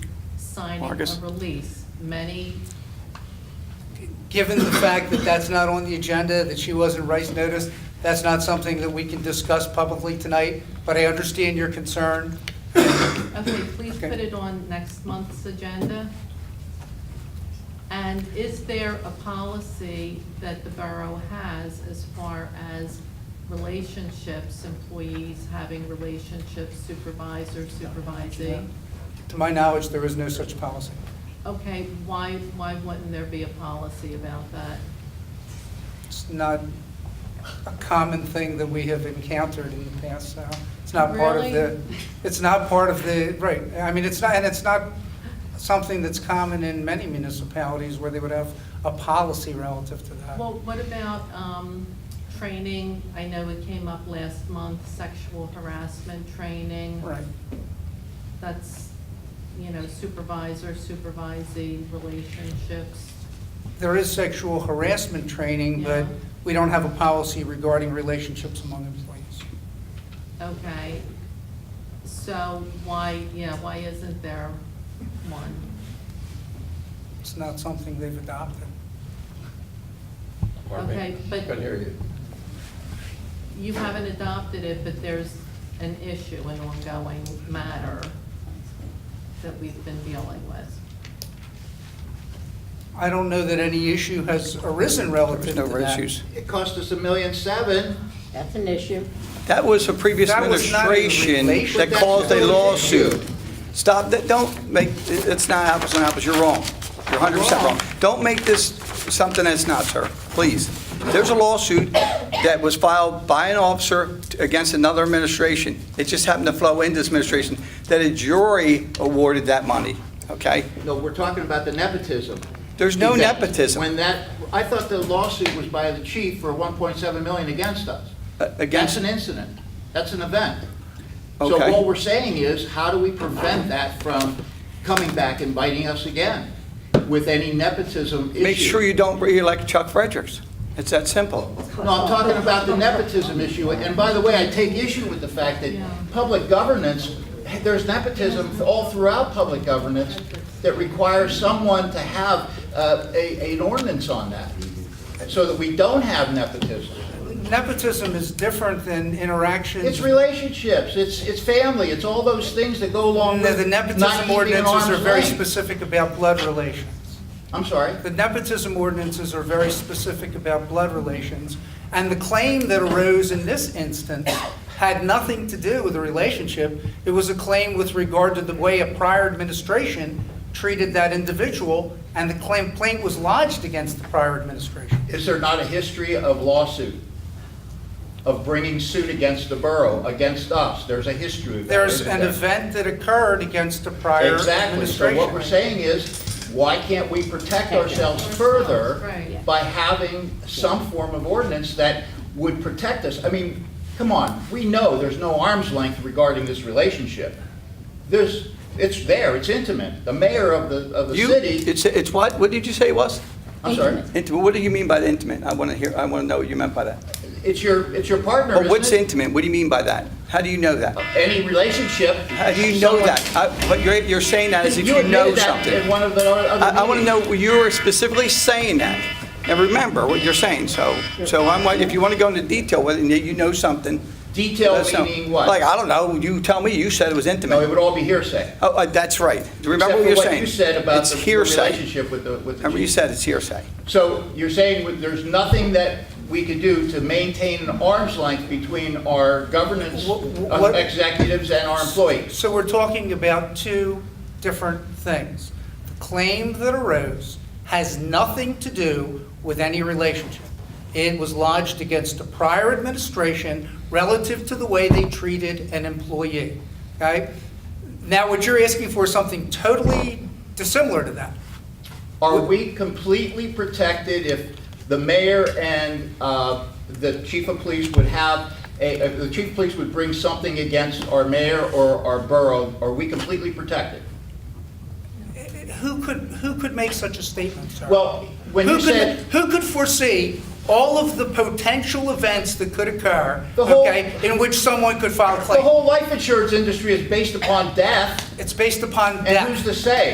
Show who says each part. Speaker 1: signing
Speaker 2: Marcus?
Speaker 1: a release, many,
Speaker 3: Given the fact that that's not on the agenda, that she wasn't rice noticed, that's not something that we can discuss publicly tonight, but I understand your concern.
Speaker 1: okay, please
Speaker 3: Okay.
Speaker 1: put it on next month's agenda. And is there a policy that the borough has as far as relationships, employees having relationships, supervisor, supervisee?
Speaker 3: To my knowledge, there is no such policy.
Speaker 1: Okay, why, why wouldn't there be a policy about that?
Speaker 3: It's not a common thing that we have encountered in the past, so it's not part of the,
Speaker 1: Really?
Speaker 3: it's not part of the, right, I mean, it's not, and it's not something that's common in many municipalities where they would have a policy relative to that.
Speaker 1: Well, what about um, training? I know it came up last month, sexual harassment training.
Speaker 3: Right.
Speaker 1: That's, you know, supervisor, supervisee relationships.
Speaker 3: There is sexual harassment training, but
Speaker 1: Yeah.
Speaker 3: we don't have a policy regarding relationships among employees.
Speaker 1: Okay. So why, yeah, why isn't there one?
Speaker 3: It's not something they've adopted.
Speaker 4: Pardon me?
Speaker 1: Okay, but-
Speaker 4: Couldn't hear you.
Speaker 1: You haven't adopted it, but there's an issue, an ongoing matter that we've been dealing with.
Speaker 3: I don't know that any issue has arisen relative
Speaker 2: There's
Speaker 3: to
Speaker 2: no
Speaker 3: that.
Speaker 2: issues.
Speaker 5: It cost us a million seven.
Speaker 6: That's an issue.
Speaker 2: That was a previous
Speaker 3: That was not in
Speaker 2: administration
Speaker 3: relation-
Speaker 2: that
Speaker 5: But
Speaker 2: caused a
Speaker 5: that's not an issue.
Speaker 2: lawsuit. Stop, that, don't make, it's not apples and apples, you're wrong. You're 100% wrong. Don't make this something that's not, sir, please. There's a lawsuit that was filed by an officer against another administration. It just happened to flow into this administration, that a jury awarded that money, okay?
Speaker 5: No, we're talking about the nepotism.
Speaker 2: There's no
Speaker 5: Exactly.
Speaker 2: nepotism.
Speaker 5: When that, I thought the lawsuit was by the chief for 1.7 million against us.
Speaker 2: Uh,
Speaker 5: That's
Speaker 2: Against,
Speaker 5: an incident. That's an event.
Speaker 2: Okay.
Speaker 5: So what we're saying is, how do we prevent that from coming back and biting us again with any nepotism issue?
Speaker 2: make sure you don't reelect Chuck Fredericks. It's that simple.
Speaker 5: No, I'm talking about the nepotism issue, and by the way, I take issue with the fact that
Speaker 1: Yeah.
Speaker 5: public governance, there's nepotism all throughout public governance that requires someone to have uh, a, an ordinance on that, so that we don't have nepotism.
Speaker 3: Nepotism is different than interactions.
Speaker 5: It's relationships, it's, it's family, it's all those things that go along
Speaker 3: The
Speaker 5: with
Speaker 3: the
Speaker 5: not
Speaker 3: nepotism
Speaker 5: keeping an
Speaker 3: ordinances are
Speaker 5: arm's
Speaker 3: very
Speaker 5: length.
Speaker 3: specific about blood relations.
Speaker 5: I'm sorry.
Speaker 3: The nepotism ordinances are very specific about blood relations, and the claim that arose in this instance had nothing to do with the relationship. It was a claim with regard to the way a prior administration treated that individual, and the claim- complaint was lodged against the prior administration.
Speaker 5: Is there not a history of lawsuit, of bringing suit against the borough, against us? There's a history of that.
Speaker 3: There's
Speaker 5: isn't
Speaker 3: an
Speaker 5: there?
Speaker 3: event that occurred against the prior administration.
Speaker 5: Exactly, so what we're saying is, why can't we protect ourselves further
Speaker 1: Right.
Speaker 5: by having some form of ordinance that would protect us? I mean, come on, we know there's no arm's length regarding this relationship. There's, it's there, it's intimate. The mayor of the, of the
Speaker 2: You,
Speaker 5: city,
Speaker 2: it's, it's what, what did you say it was?
Speaker 5: I'm sorry,
Speaker 6: Intimate.
Speaker 2: Intimate, what do you mean by intimate? I want to hear, I want to know what you meant by that.
Speaker 5: it's your, it's your partner,
Speaker 2: But what's
Speaker 5: isn't it?
Speaker 2: intimate? What do you mean by that? How do you know that?
Speaker 5: Any relationship.
Speaker 2: How do you know
Speaker 5: someone-
Speaker 2: that? I- But you're, you're saying that as if you
Speaker 5: admitted
Speaker 2: know
Speaker 5: that in
Speaker 2: something.
Speaker 5: one of the other
Speaker 2: I, I want to
Speaker 5: meetings.
Speaker 2: know, you were specifically saying that. And remember what you're saying, so, so I'm, like, if you want to go into detail with it, and you know something.
Speaker 5: Detail
Speaker 2: let us know.
Speaker 5: meaning what?
Speaker 2: Like, I don't know, you tell me, you said it was
Speaker 5: No, it
Speaker 2: intimate.
Speaker 5: would all be hearsay.
Speaker 2: Oh, uh, that's right. Remember what you're
Speaker 5: Except for
Speaker 2: saying?
Speaker 5: what you said about
Speaker 2: It's
Speaker 5: the the
Speaker 2: hearsay.
Speaker 5: relationship with the, with the
Speaker 2: Remember you
Speaker 5: chief.
Speaker 2: said it's hearsay.
Speaker 5: So you're saying with- there's nothing that we could do to maintain an arm's length between our governance
Speaker 3: Wh- wh- what-
Speaker 5: executives and our employees?
Speaker 3: So we're talking about two different things. The claim that arose has nothing to do with any relationship. It was lodged against a prior administration relative to the way they treated an employee, okay? Now, what you're asking for is something totally dissimilar to that.
Speaker 5: Are we completely protected if the mayor and uh, the chief of police would have, a- if the chief of police would bring something against our mayor or our borough? Are we completely protected?
Speaker 3: Who could, who could make such a statement, sir?
Speaker 5: Well, when
Speaker 3: Who
Speaker 5: you
Speaker 3: could-
Speaker 5: said.
Speaker 3: Who could foresee all of the potential events that could occur,
Speaker 5: The whole-
Speaker 3: okay, in which someone could file a
Speaker 5: The
Speaker 3: claim?
Speaker 5: whole life insurance industry is based upon death,
Speaker 3: It's based upon
Speaker 5: and
Speaker 3: death.
Speaker 5: who's to say?